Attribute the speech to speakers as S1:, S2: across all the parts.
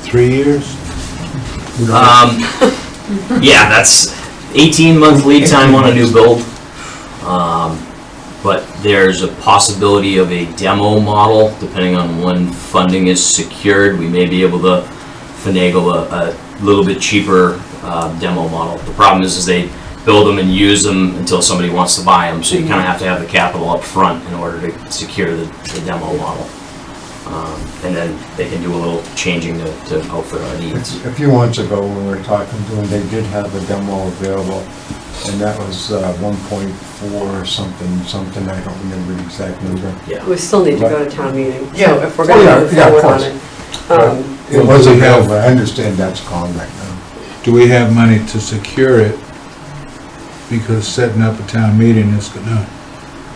S1: three years?
S2: Um, yeah, that's eighteen month lead time on a new build. Um, but there's a possibility of a demo model, depending on when funding is secured, we may be able to finagle a, a little bit cheaper, uh, demo model. The problem is, is they build them and use them until somebody wants to buy them, so you kinda have to have the capital up front in order to secure the, the demo model. Um, and then they can do a little changing to, to outfit our needs.
S3: A few months ago, when we were talking to them, they did have a demo available, and that was uh, 1.4 or something, something, I don't remember the exact number.
S2: Yeah.
S4: We still need to go to town meeting, so
S3: Yeah.
S4: if we're
S3: Oh, yeah,
S4: gonna move
S3: yeah, of
S4: forward on
S3: course.
S4: it. um,
S3: It was available, I understand that's gone right now.
S1: Do we have money to secure it? Because setting up a town meeting is gonna,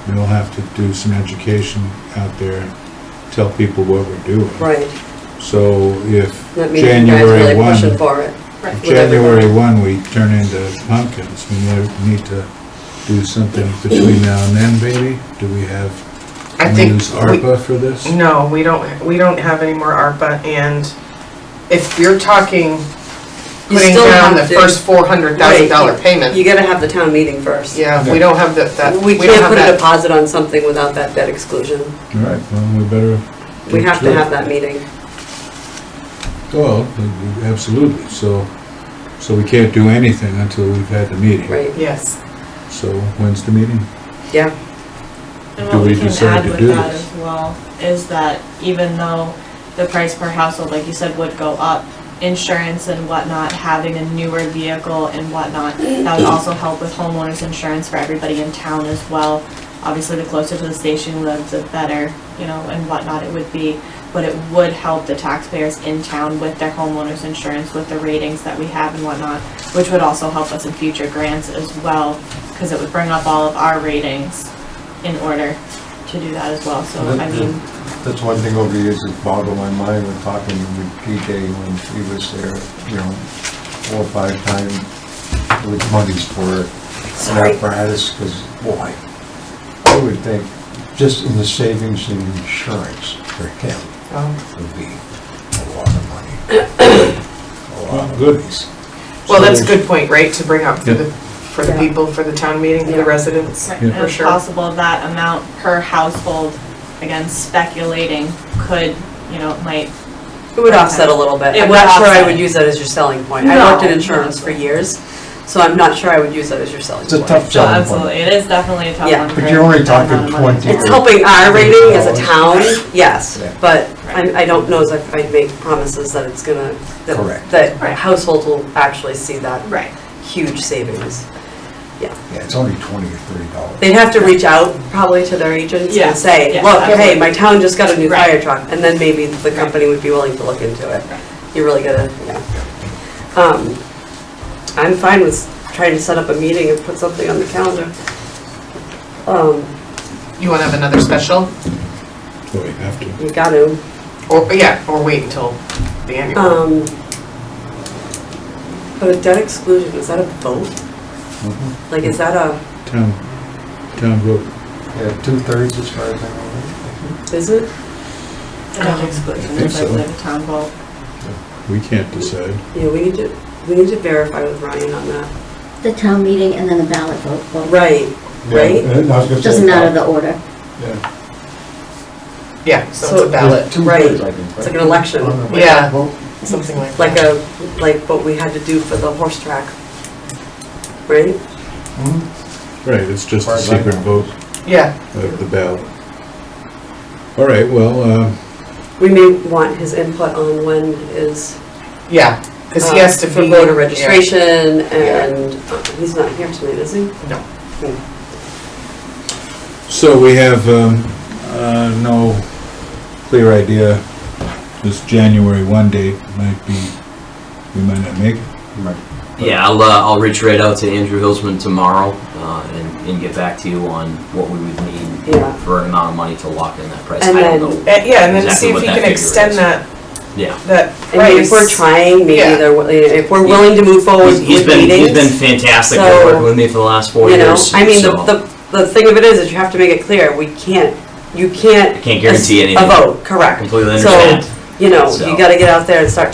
S1: we'll have to do some education out there, tell people what we're doing.
S4: Right,
S1: So if
S4: that means you guys are
S1: January
S4: really pushing
S1: one,
S4: for it.
S1: if
S4: with everyone.
S1: January one, we turn into pumpkins, we may- need to do something between now and then, maybe? Do we have,
S5: I
S1: can we
S5: think,
S1: use ARPA for this?
S5: we- no, we don't, we don't have any more ARPA, and if you're talking
S4: You
S5: putting
S4: still
S5: down the
S4: have to-
S5: first four hundred thousand
S4: Right,
S5: dollar
S4: you- You
S5: payment,
S4: gotta have the town meeting first.
S5: yeah, we don't have that, that,
S4: We
S5: we don't
S4: can't
S5: have
S4: put a
S5: that.
S4: deposit on something without that debt exclusion.
S1: Right, well, we better.
S4: We
S1: get
S4: have to
S1: it.
S4: have that meeting.
S1: Well, absolutely, so, so we can't do anything until we've had the meeting.
S4: Right,
S5: Yes.
S1: So when's the meeting?
S4: yeah,
S6: And
S1: Do
S6: what
S1: we
S6: we can
S1: decide
S6: add
S1: to
S6: with
S1: do
S6: that
S1: this?
S6: as well is that even though the price per household, like you said, would go up, insurance and whatnot, having a newer vehicle and whatnot, that would also help with homeowners insurance for everybody in town as well. Obviously, the closer to the station you live, the better, you know, and whatnot it would be. But it would help the taxpayers in town with their homeowners insurance, with the ratings that we have and whatnot, which would also help us in future grants as well, because it would bring up all of our ratings in order to do that as well, so I mean,
S3: That's one thing over the years that boggled my mind when talking with PJ when he was there, you know, four or five times with monies for an
S4: sorry.
S3: apparatus, because boy, I would think just in the savings and insurance for him,
S5: Oh.
S3: would be a lot of money. A lot of
S1: Good.
S3: monies.
S5: Well, that's a good point, right, to bring up for the,
S1: Yeah.
S5: for the
S4: Yeah.
S5: people, for the town meeting, for
S4: Yeah.
S5: the residents.
S6: and
S1: Yeah.
S5: For
S6: it's
S5: sure.
S6: possible that amount per household, again, speculating, could, you know, might,
S4: It would offset a little bit.
S6: It
S4: I'm
S6: would
S4: not sure I
S6: offset.
S4: would use that as your selling point. I
S6: No,
S4: worked in insurance
S6: no.
S4: for years, so I'm not sure I would use that as your selling
S3: It's a
S4: point.
S3: tough
S6: so
S3: selling
S6: absolutely,
S3: point.
S6: it is definitely a tough
S4: Yeah.
S6: one.
S3: But
S6: for
S3: you're only
S6: that
S3: talking
S6: amount of money.
S3: 20
S4: It's helping our rating as a town, yes,
S3: Yeah.
S4: but I, I don't know as I- I'd make promises that it's gonna, that,
S3: Correct.
S4: that
S6: Right.
S4: households will actually see that
S6: Right,
S4: huge savings.
S3: Yeah, it's only twenty or thirty dollars.
S4: They'd have to reach out probably to their agents
S6: Yeah,
S4: and say,
S6: yeah,
S4: look, hey,
S6: absolutely.
S4: my town just got a new
S6: Right.
S4: fire truck, and then maybe the
S6: Right.
S4: company would be willing to look into it.
S6: Right.
S4: You really gotta, yeah. Um, I'm fine with trying to set up a meeting and put something on the calendar. Um,
S5: You wanna have another special,
S1: Well, we have to.
S4: you gotta,
S5: or, yeah, or wait until the annual?
S4: um, but a debt exclusion, is that a vote?
S3: Mhm.
S2: Mm-hmm.
S4: Like, is that a,
S1: Town, town vote.
S3: Yeah, two-thirds as far as I know.
S4: is it?
S6: the debt exclusion,
S1: think
S6: is I
S1: so.
S6: believe a town vote.
S1: We can't decide.
S4: Yeah, we need to, we need to verify with Ryan on that.
S7: The town meeting and then the ballot vote. Well,
S4: Right, right?
S3: Yeah, and I was gonna say
S7: Doesn't matter the
S3: about-
S7: order.
S3: Yeah.
S5: Yeah, so it's
S4: so-
S5: a ballot,
S3: Two-thirds, I think.
S4: It's like
S3: right?
S4: an election.
S3: Oh, no,
S5: Yeah.
S3: well,
S5: something like that.
S4: like a, like what we had to do for the horse track, right?
S3: mhm.
S1: Right, it's just a
S3: Right, right.
S1: secret vote
S5: Yeah,
S1: of the ballot. All right, well, uh,
S4: We may want his input on when is.
S5: yeah, cause he
S4: uh,
S5: has to be.
S4: For voter
S5: yeah.
S4: registration, and uh, he's not here tonight, is he?
S5: No.
S1: so we have, um, uh, no clear idea. This January one date might be, we might not make it.
S3: Right.
S2: Yeah, I'll, uh, I'll reach right out to Andrew Hillsman tomorrow, uh, and, and get back to you on what we would need
S4: Yeah.
S2: for an amount of money to lock in that price.
S4: And
S2: I
S4: then-
S2: don't know.
S5: And- Yeah, and then
S2: Exactly
S5: see if
S2: what
S5: he
S2: that
S5: can
S2: figure
S5: extend
S2: is.
S5: that,
S2: Yeah.
S5: that
S4: I mean, if we're
S5: price.
S4: trying, maybe
S5: Yeah.
S4: they're, wi- if we're willing to move forward
S2: He's-
S4: with
S2: He's been, he's been
S4: meetings,
S2: fantastic at
S4: so,
S2: working with me for the last four
S4: you know,
S2: years.
S4: I mean, the,
S2: so
S4: the, the thing of it is, is you have to make it clear, we can't, you can't.
S2: I can't guarantee
S4: A
S2: anything.
S4: vote, correct.
S2: Completely
S4: So,
S2: understand.
S4: You know,
S2: So-
S4: you gotta get out there and start